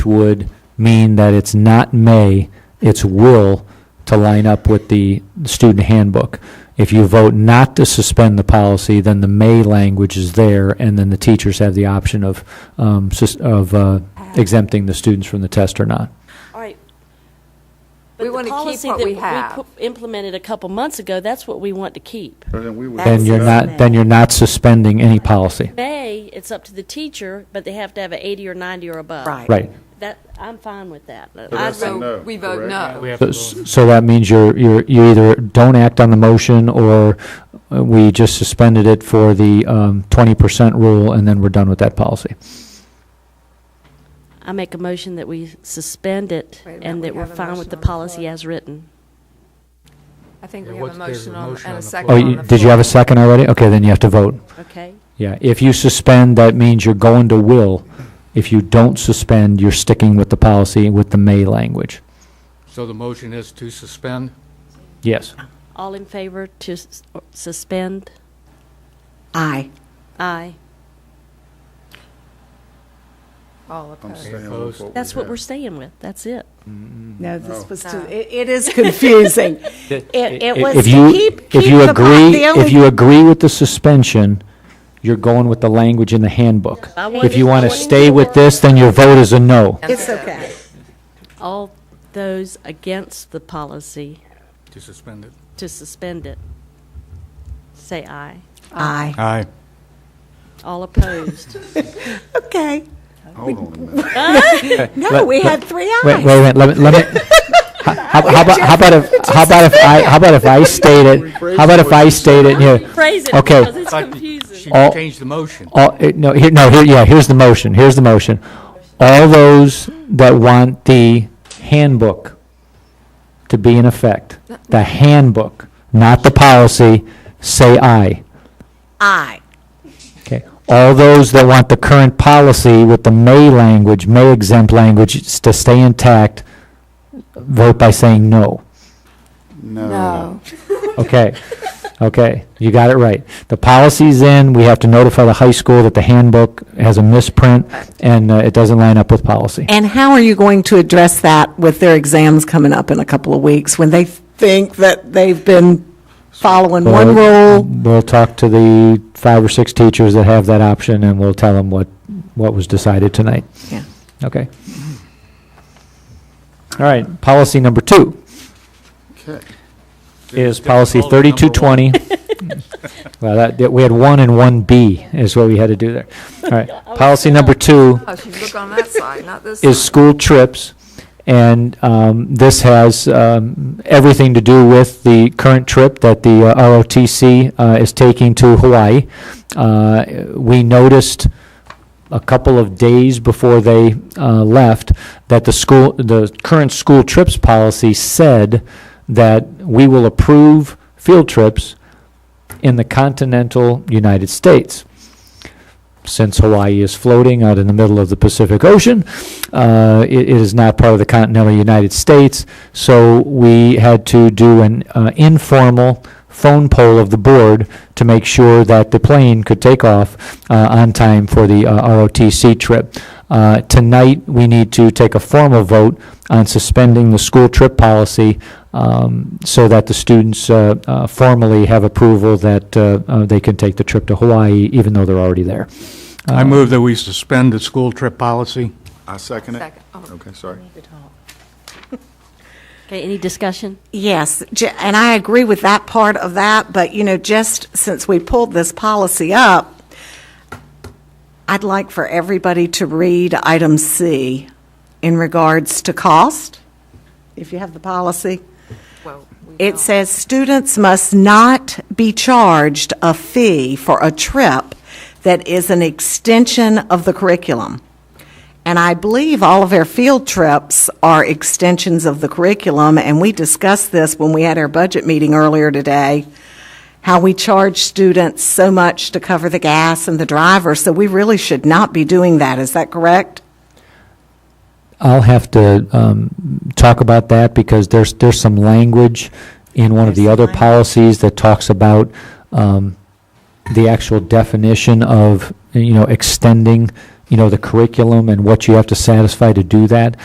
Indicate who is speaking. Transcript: Speaker 1: would mean that it's not may, it's will to line up with the student handbook. If you vote not to suspend the policy, then the may language is there, and then the teachers have the option of, um, sus- of uh, exempting the students from the test or not.
Speaker 2: All right.
Speaker 3: We
Speaker 2: But
Speaker 3: wanna
Speaker 2: the
Speaker 3: keep
Speaker 2: policy
Speaker 3: what
Speaker 2: that
Speaker 3: we
Speaker 2: we
Speaker 3: have.
Speaker 2: pu- implemented a couple months ago, that's what we want to keep.
Speaker 4: Then we would.
Speaker 1: Then you're not, then you're not suspending any policy.
Speaker 2: May, it's up to the teacher, but they have to have an 80 or 90 or above.
Speaker 1: Right.
Speaker 2: That, I'm fine with that.
Speaker 4: that's
Speaker 2: I'd
Speaker 4: a
Speaker 2: vote-
Speaker 4: no,
Speaker 3: So we vote
Speaker 4: correct?
Speaker 3: no.
Speaker 1: So- So that means you're, you're, you either don't act on the motion, or uh, we just suspended it for the um, 20% rule, and then we're done with that policy.
Speaker 2: I make a motion that we suspend it
Speaker 3: Wait a minute,
Speaker 2: and
Speaker 3: we
Speaker 2: that we're
Speaker 3: have a
Speaker 2: fine
Speaker 3: motion
Speaker 2: with the
Speaker 3: on the floor.
Speaker 2: policy as written.
Speaker 3: I think we
Speaker 5: Yeah,
Speaker 3: have a
Speaker 5: what's- there's
Speaker 3: motion
Speaker 5: a
Speaker 3: on,
Speaker 5: motion
Speaker 3: and
Speaker 5: on
Speaker 3: a
Speaker 5: the
Speaker 3: second
Speaker 1: Oh,
Speaker 3: on
Speaker 1: you-
Speaker 3: the
Speaker 1: did you
Speaker 3: floor.
Speaker 1: have a second already? Okay, then you have to vote.
Speaker 2: Okay?
Speaker 1: Yeah, if you suspend, that means you're going to will. If you don't suspend, you're sticking with the policy with the may language.
Speaker 5: So the motion is to suspend?
Speaker 1: Yes.
Speaker 2: All in favor to s- suspend?
Speaker 6: Aye.
Speaker 2: Aye.
Speaker 3: All
Speaker 4: I'm
Speaker 3: opposed.
Speaker 4: staying with what we
Speaker 2: That's what
Speaker 4: have.
Speaker 2: we're staying with. That's it.
Speaker 6: No,
Speaker 4: Oh.
Speaker 6: this was,
Speaker 3: No.
Speaker 6: too- it it is confusing.
Speaker 2: It, it
Speaker 1: If you, if you agree, if you agree with the suspension, you're going with the language in the handbook.
Speaker 2: I
Speaker 1: If
Speaker 2: wanted-
Speaker 1: you want
Speaker 2: I
Speaker 1: to
Speaker 2: wanted
Speaker 1: stay with this, then your vote is a no.
Speaker 6: It's okay.
Speaker 2: All those against the policy
Speaker 5: To suspend it.
Speaker 2: to suspend it, say aye.
Speaker 6: Aye.
Speaker 1: Ah.
Speaker 5: Aye.
Speaker 2: All opposed.
Speaker 6: Okay.
Speaker 4: Hold on a minute.
Speaker 6: No, we had three
Speaker 1: Wait, wait,
Speaker 6: ayes.
Speaker 1: wait, let me, let me, how, how about, how about if, how about if I, how about if I state it, how about if I state it here?
Speaker 2: Phrase it
Speaker 1: Okay.
Speaker 2: because it's confusing.
Speaker 5: She
Speaker 1: All-
Speaker 5: changed the motion.
Speaker 1: All, eh, no, here, no, here, yeah, here's the motion, here's the motion. All those that want the handbook to be in effect, the handbook, not the policy, say aye.
Speaker 6: Aye.
Speaker 1: Okay. All those that want the current policy with the may language, may exempt language s- to stay intact, vote by saying no.
Speaker 4: No.
Speaker 1: Okay, okay, you got it right. The policy's in, we have to notify the high school that the handbook has a misprint, and uh, it doesn't line up with policy.
Speaker 6: And how are you going to address that with their exams coming up in a couple of weeks when they think that they've been following one
Speaker 1: We'll-
Speaker 6: rule?
Speaker 1: We'll talk to the five or six teachers that have that option, and we'll tell them what, what was decided tonight.
Speaker 6: Yeah.
Speaker 1: Okay. All right, policy number two.
Speaker 4: Okay.
Speaker 1: is policy
Speaker 5: Difficult number
Speaker 1: thirty-two
Speaker 5: one.
Speaker 1: twenty. Well, that, that- we had one and one B is what we had to do there. All right. Policy number two
Speaker 3: Oh, she look on that side, not this
Speaker 1: is
Speaker 3: side.
Speaker 1: school trips. And, um, this has, um, everything to do with the current trip that the uh, ROTC, uh, is taking to Hawaii. Uh, we noticed a couple of days before they, uh, left that the school, the current school trips policy said that we will approve field trips in the continental United States. Since Hawaii is floating out in the middle of the Pacific Ocean, uh, it, it is not part of the continental United States. So we had to do an uh, informal phone poll of the board to make sure that the plane could take off uh, on time for the uh, ROTC trip. Uh, tonight, we need to take a formal vote on suspending the school trip policy um, so that the students uh, uh, formally have approval that uh, uh, they can take the trip to Hawaii, even though they're already there.
Speaker 5: I move that we suspend the school trip policy.
Speaker 4: I second it.
Speaker 3: Second. Oh.
Speaker 4: Okay, sorry.
Speaker 2: Okay, any discussion?
Speaker 6: Yes, j- and I agree with that part of that, but, you know, just since we pulled this policy up, I'd like for everybody to read item C in regards to cost, if you have the policy.
Speaker 3: Well, we
Speaker 6: It
Speaker 3: don't.
Speaker 6: says students must not be charged a fee for a trip that is an extension of the curriculum. And I believe all of our field trips are extensions of the curriculum, and we discussed this when we had our budget meeting earlier today, how we charge students so much to cover the gas and the driver, so we really should not be doing that. Is that correct?
Speaker 1: I'll have to um, talk about that because there's, there's some language in one of the other policies that talks about um, the actual definition of, you know, extending you know, the curriculum and what you have to satisfy to do that.